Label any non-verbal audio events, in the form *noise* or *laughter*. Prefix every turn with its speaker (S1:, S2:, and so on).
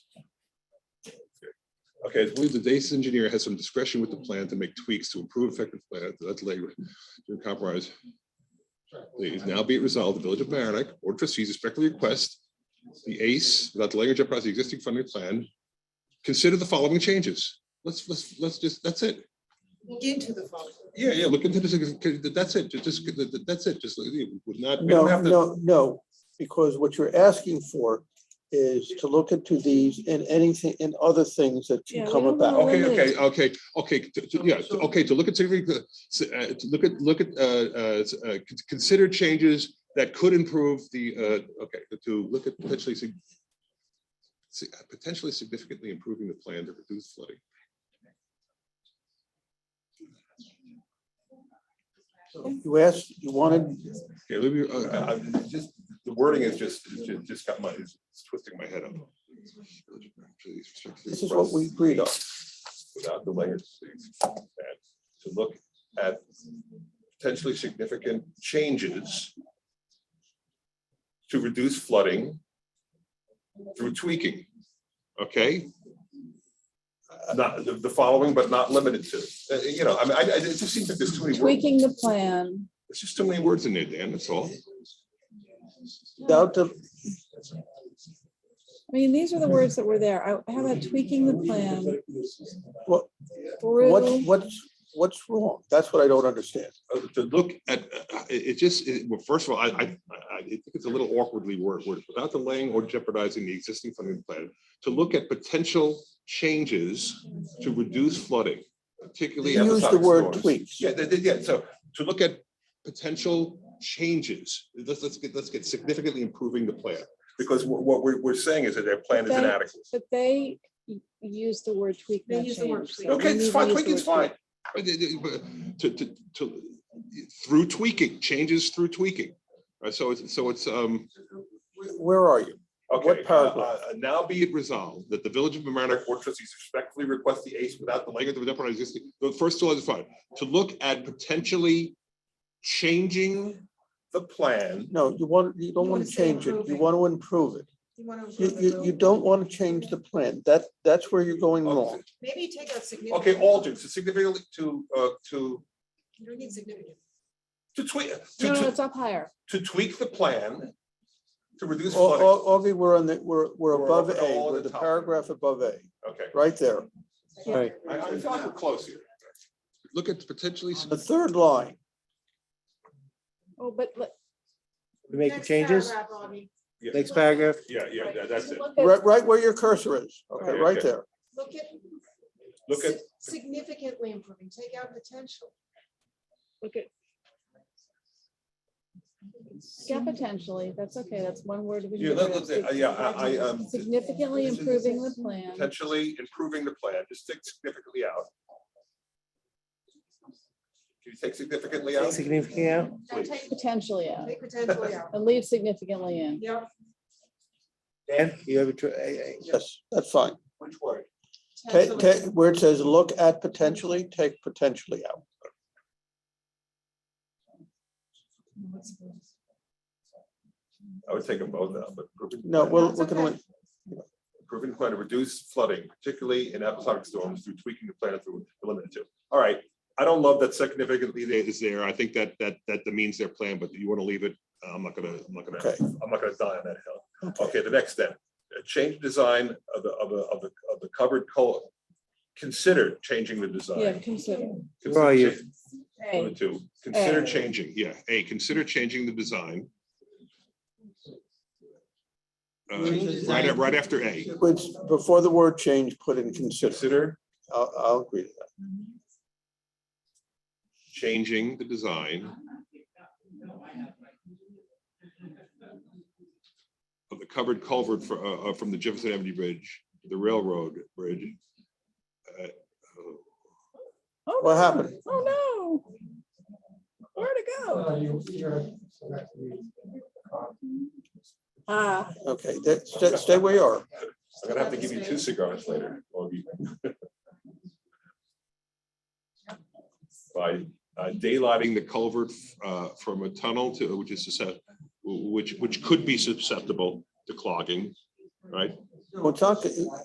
S1: Okay, I believe the base engineer has some discretion with the plan to make tweaks to improve effective plan, that's labor, to compromise. Please now be it resolved, the Village of Mamaroneck Board of Trustees respectfully request the ACE, without the language of the existing funding plan, consider the following changes. Let's, let's, let's just, that's it.
S2: Look into the phone.
S1: Yeah, yeah, look into this, that's it, just, that's it, just, would not. we don't
S3: No,
S1: have to-
S3: no, no, because what you're asking for is to look into these and anything and other things that
S4: Yeah,
S3: can
S4: we
S3: come
S4: don't
S3: about.
S4: know.
S1: Okay,
S4: Really?
S1: okay, okay, okay, to- to- yeah, to- okay, to look at, significant- s- uh, to look at, look at, uh, uh, s- uh, con- consider changes that could improve the, uh, okay, to look at potentially sig- si- uh, potentially significantly improving the plan to reduce flooding.
S3: You asked, you wanted,
S1: Okay, let me, uh, I- I'm just, the wording is just, it's ju- just got my, it's twisting my head up.
S3: this is what we agreed on.
S1: without the language, to look at potentially significant changes to reduce flooding through tweaking, okay? Not, the, the following, but not limited to, Uh, you know, I mean, I, I, it just seems like there's too many words,
S4: Tweaking the plan.
S1: there's just too many words in there, Dan, that's all.
S3: Without the,
S4: I mean, these are the words that were there. I, how about tweaking the plan
S3: what, what's,
S4: through,
S3: what's, what's wrong? That's what I don't understand.
S1: uh, to look at, uh, it, it just, it- well, first of all, I, I, I- I think it's a little awkwardly worded, worded, without delaying or jeopardizing the existing funding plan, to look at potential changes to reduce flooding, particularly.
S3: You used the
S1: episodic
S3: word
S1: storms.
S3: tweaks.
S1: Yeah, they- they- yeah, so to look at potential changes, let's, let's get, let's get significantly improving the plan. Because what, what we're, we're saying is that their plan
S4: is But they-
S1: inadequate.
S4: but they u- use the word tweak,
S2: They
S4: not
S2: use the word
S4: change. so
S2: tweak.
S4: we
S1: Okay,
S4: need
S1: it's
S4: to
S1: fine,
S4: use the
S1: tweaking's
S4: word
S1: fine. But it- but To, to, to, through tweaking, changes through tweaking. Right, so it's, so it's, um,
S3: Where are you?
S5: Okay, uh,
S3: paragraph?
S5: uh, now
S1: be
S5: be
S1: it resolved that the Village of Mamaroneck Board of Trustees
S5: respectfully request the ACE without
S1: without the language of the department existing, the first two is fine, to look at potentially changing,
S5: the plan.
S3: No, you want, you don't
S2: You
S3: want
S2: wanna
S3: to
S2: say
S3: change it. You
S2: improving.
S3: want to improve it.
S2: You want
S3: You, you, you don't want to change the plan. That, that's where you're going wrong.
S2: Maybe take out significant.
S5: Okay, altered, so significantly to, uh, to,
S2: You don't need significant.
S5: to tweak,
S4: tweak. No, no,
S5: to,
S4: it's up higher.
S5: to tweak the plan to reduce
S3: Au-
S5: flooding.
S3: au- Augie, we're on the, we're, we're
S5: We're
S3: above
S5: over
S3: A,
S5: all
S3: we're
S5: the
S3: the
S5: top.
S3: paragraph above A,
S5: Okay,
S3: right there. Right.
S5: I, I feel like we're close here.
S1: look at potentially,
S3: The third line,
S4: Oh, but let-
S6: We make the changes,
S5: Yeah,
S6: next paragraph,
S5: Yeah, yeah, that- that's it.
S2: Look at-
S3: right, right where your cursor is, okay,
S5: Okay,
S3: right
S5: okay.
S3: there.
S2: Look at.
S5: Look at-
S2: sig- Significantly improving, take out potential.
S4: look at. Yeah, potentially, that's okay, that's one word. we
S5: Yeah,
S4: can
S5: let-
S4: get
S5: let's
S4: rid
S5: say,
S4: of.
S5: uh, yeah, I, I, um,
S4: Significantly improving the plan
S5: potentially improving the plan, just take significantly out. Can you take significantly out?
S6: significant out,
S2: Now take,
S4: potentially out
S2: take
S3: *laughs*
S2: potentially out.
S4: and leave significantly in.
S2: Yeah,
S6: Dan, you have a, tr- I- I-
S3: Yes, that's fine.
S5: Which word?
S3: Ta- ta- where it says look at potentially, take potentially out.
S5: I would take them both out, but. improving-
S3: No, well,
S2: That's
S3: we're gonna,
S2: okay.
S5: Improving plan to reduce flooding, particularly in episodic storms through tweaking the plan through the limit to. All right, I don't love that significantly there
S1: is there, I think that, that, that demeans their plan, but you want to leave it,
S5: uh,
S1: I'm not gonna, I'm not gonna.
S3: okay,
S5: I'm not gonna die on that hill. Okay, the next step, uh, change design of the, of the, of the, of the covered color. Consider changing the
S4: Yeah,
S5: design.
S4: consider.
S6: Where are you?
S4: A.
S5: Limit to,
S1: Consider
S5: consider change,
S1: changing, yeah, A, consider changing the design. Uh, Right, a- right after A,
S3: which, before the word change, put in consider.
S5: consider
S3: I'll, I'll agree to that.
S1: changing the design of the covered culvert for, uh, uh, from the Jefferson Avenue Bridge, to the railroad bridge. Uh, oh,
S4: Oh,
S3: What
S4: no.
S3: happened?
S4: Oh, no. Where to go? Ah,
S3: Okay, that, stay, stay where you are.
S5: I'm gonna have to give you two cigars later. Augie. By
S1: uh, Daylighting the culvert uh, from a tunnel to, which is, suscep- which, which could be susceptible to clogging, right?
S3: Well, it's not-